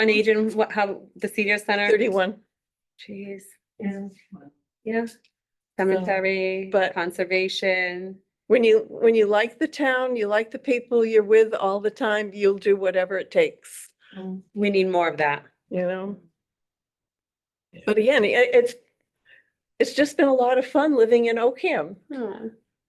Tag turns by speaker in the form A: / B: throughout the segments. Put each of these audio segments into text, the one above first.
A: on agent, what, how, the senior center?
B: Thirty-one,
A: Jeez, yeah, yeah. Cemetery,
B: Um, but-
A: conservation,
B: when you, when you like the town, you like the people you're with all the time, you'll do whatever it takes,
A: we need more of that.
B: you know?
C: Yeah.
B: But again, i- it's, it's just been a lot of fun living in Oakham.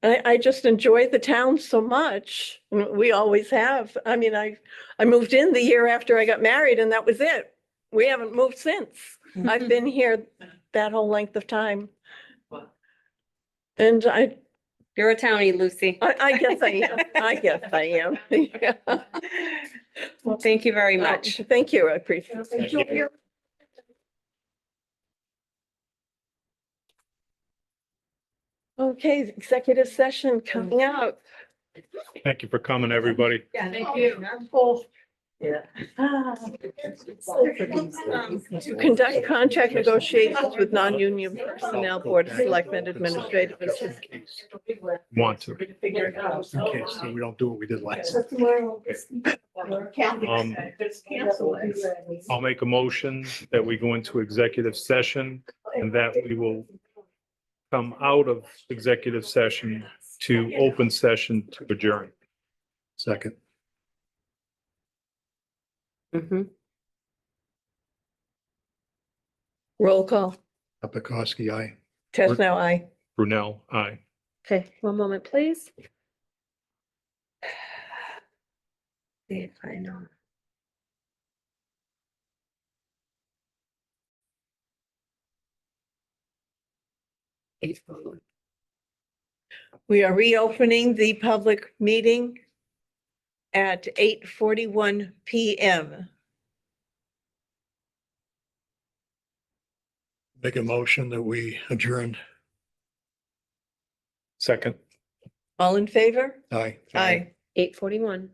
B: I, I just enjoy the town so much. and We always have. I mean, I, I moved in the year after I got married and that was it. We haven't moved since. I've been here that whole length of time. And I,
A: You're a townie, Lucy.
B: I, I guess I am. I guess I am. Yeah.
A: Well, thank you very much.
B: Um, Thank you. I appreciate it.
C: Thank you.
B: Okay, executive session coming out.
C: Thank you for coming, everybody.
D: Yeah, thank you.
B: Ah,
D: um,
B: To conduct contract negotiations with non-union personnel, Board of Selectmen, Administrative Assistant.
C: Want to.
D: Figure it out.
C: Okay, so we don't do what we did last. time. Um, I'll make a motion that we go into executive session and that we will come out of executive session to open session to adjourn. Second.
B: mm-hmm.
A: Mhm.
B: Roll call.
C: Apikoski, aye.
B: Test now, aye.
C: Brunel, aye.
B: Okay, one moment, please.
A: See if I know.
B: We are reopening the public meeting at eight forty-one PM.
E: Make a motion that we adjourn.
C: Second.
B: All in favor?
E: Aye.
B: Aye.
F: Eight forty-one.